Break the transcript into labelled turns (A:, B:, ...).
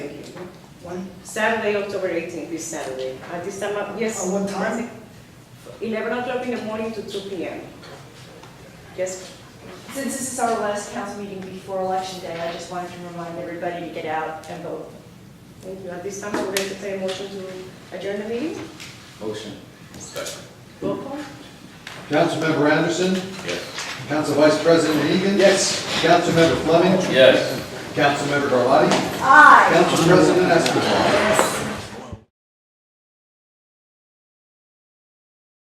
A: When?
B: Saturday, October eighteenth, this Saturday. At this time, uh, yes.
A: At what time?
B: Eleven o'clock in the morning to two P M. Yes,
C: Since this is our last council meeting before Election Day, I just wanted to remind everybody to get out and vote.
B: thank you. At this time, I would entertain a motion to adjourn the meeting.
D: Motion.
B: Roll call.
E: Councilmember Anderson,
D: Yes.
E: Council Vice President Egan. Yes. Councilmember Fleming,
D: Yes.
E: Councilmember Garlotti,
C: Aye.
E: Council President Escobar.
B: Yes.